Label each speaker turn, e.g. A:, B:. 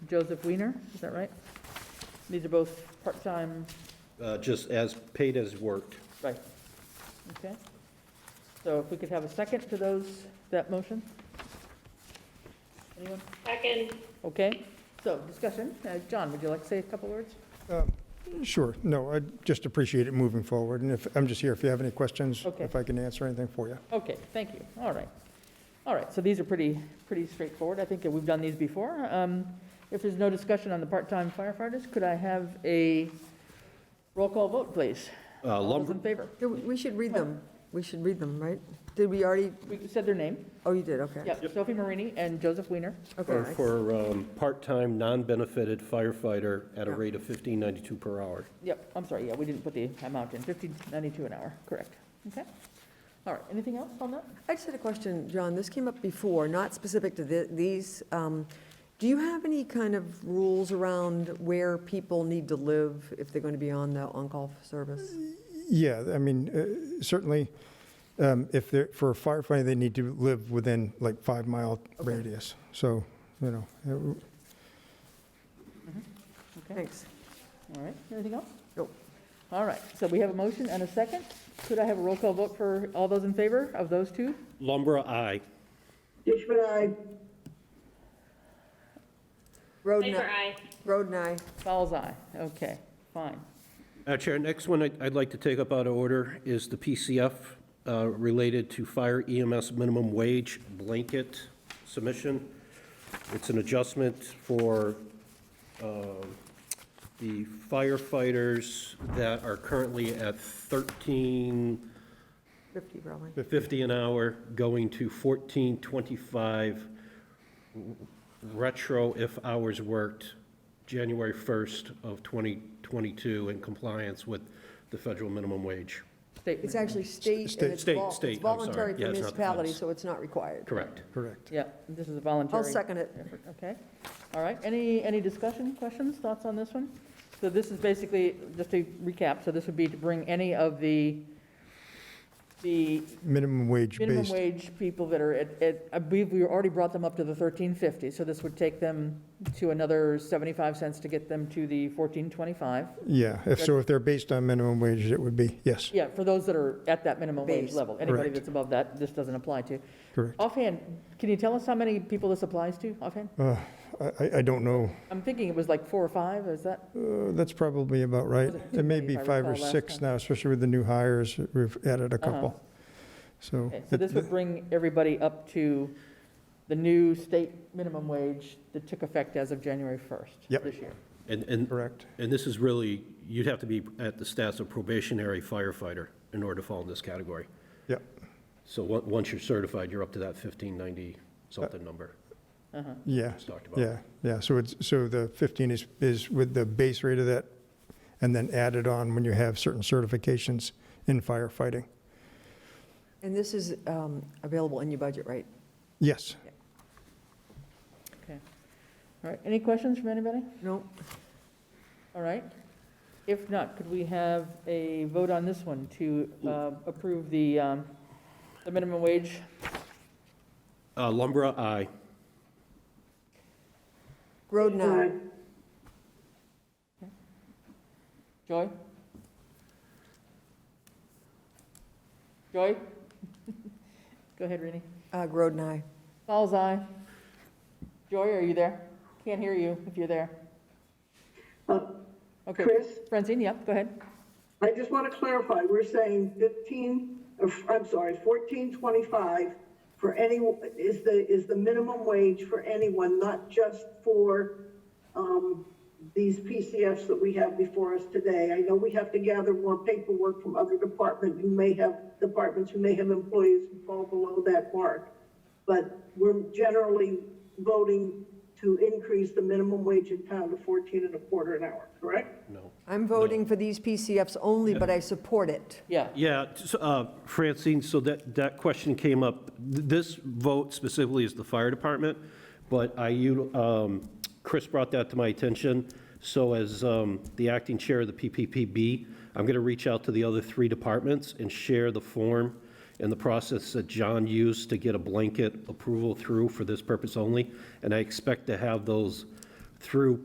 A: Joseph Weiner, is that right? These are both part-time,
B: Uh, Just as, paid as worked.
A: right, okay? So if we could have a second to those, that motion? Anyone?
C: Second,
A: Okay, so discussion, Uh, John, would you like to say a couple words?
D: Sure, no, I just appreciate it moving forward, and if, I'm just here if you have any questions,
A: Okay.
D: if I can answer anything for you.
A: Okay, thank you, all right. All right, so these are pretty, pretty straightforward, I think that we've done these before. Um, If there's no discussion on the part-time firefighters, could I have a roll call vote, please?
B: Uh,
A: All those in
B: Lumber,
A: favor?
E: Yeah, We we should read them. We should read them, right? Did we already,
A: We said their name,
E: oh, you did, okay.
A: yep, Sophie Marini and Joseph Weiner.
E: Okay,
B: are
E: I-
B: for um, part-time, non-benefited firefighter at a rate of 1592 per hour.
A: Yep, I'm sorry, yeah, we didn't put the amount in, fifteen ninety-two an hour, correct. Okay, all right, anything else on that?
E: I just had a question, John. This came up before, not specific to thi- these. Um, Do you have any kind of rules around where people need to live if they're going to be on the on-call service?
D: Yeah, I mean, uh, certainly, um, if they're, for firefighting, they need to live within like five-mile
E: Okay.
D: radius, so, you know, uh,
A: Okay,
E: Thanks.
A: all right, anything else?
E: Nope.
A: All right, so we have a motion and a second. Could I have a roll call vote for all those in favor of those two?
B: Lumber, aye.
E: Road and
C: Piper,
E: I,
C: aye.
E: Road and I,
A: Fowles eye, okay, fine.
B: Uh, Chair, next one I- I'd like to take up out of order is the PCF uh, related to fire EMS minimum wage blanket submission. It's an adjustment for um, the firefighters that are currently at 1350
E: 50 probably.
B: an hour, going to 1425 retro if hours worked January 1st of 2022 in compliance with the federal minimum wage.
A: Statement.
E: It's actually state and it's
B: State-
E: vol-
B: state,
E: it's
B: I'm sorry.
E: voluntary
B: Yeah, it's
E: for
B: not the
E: municipality,
B: feds.
E: so it's not required.
B: Correct.
D: correct.
A: Yeah, this is a voluntary.
E: I'll second it.
A: effort, Okay, all right. Any, any discussion, questions, thoughts on this one? So this is basically, just to recap, so this would be to bring any of the, the
D: Minimum
A: minimum
D: wage-based,
A: wage people that are at, at, I believe we already brought them up to the thirteen fifty, so this would take them to another seventy-five cents to get them to the fourteen twenty-five.
D: yeah, if, so if they're based on minimum wage, it would be, yes,
A: Yeah, for those that are at that minimum wage
E: Base.
A: level. Anybody
D: Correct.
A: that's above that, this doesn't apply to.
D: correct.
A: Offhand, can you tell us how many people this applies to offhand?
D: Uh, I, I- I don't know,
A: I'm thinking it was like four or five, is that?
D: Uh, that's probably about right.
A: Was it
D: It may
A: two,
D: be
A: if I
D: five or
A: recall last
D: six
A: time?
D: now, especially with the new hires, we've added a
A: Uh-huh.
D: couple, so.
A: Okay, So
D: it-
A: this would bring everybody up to the new state minimum wage that took effect as of January 1st
D: Yep.
A: this year.
B: And, and,
D: Correct,
B: and this is really, you'd have to be at the stats of probationary firefighter in order to fall in this category.
D: yeah,
B: So on- once you're certified, you're up to that 1590-something number
A: Uh-huh.
D: yeah.
B: we talked about.
D: Yeah, yeah, so it's, so the 15 is, is with the base rate of that, and then added on when you have certain certifications in firefighting.
E: And this is um, available in your budget, right?
D: Yes,
A: Okay. All right, any questions from anybody?
E: No?
A: All right. If not, could we have a vote on this one to uh, approve the, um, the minimum wage?
B: Uh, Lumber, aye.
E: Road and
F: uh,
E: I,
A: Joy? Joy? Go ahead, Rini.
E: uh, Road and I.
A: Fowles, aye. Joy, are you there? Can't hear you if you're there. Okay,
F: Chris,
A: Francine, yep, go ahead.
F: I just want to clarify, we're saying 15, uh, I'm sorry, 1425 for any, is the, is the minimum wage for anyone, not just for um, these PCFs that we have before us today. I know we have to gather more paperwork from other department who may have, departments who may have employees who fall below that mark. But we're generally voting to increase the minimum wage in town to 14 and a quarter an hour, correct?
B: No.
E: I'm voting for these PCFs only, but I support it.
A: Yeah,
B: Yeah, so, uh, Francine, so that, that question came up. Th- This vote specifically is the fire department, but I, util- um, Chris brought that to my attention. So as um, the acting chair of the PPPB, I'm going to reach out to the other three departments and share the form and the process that John used to get a blanket approval through for this purpose only. And I expect to have those through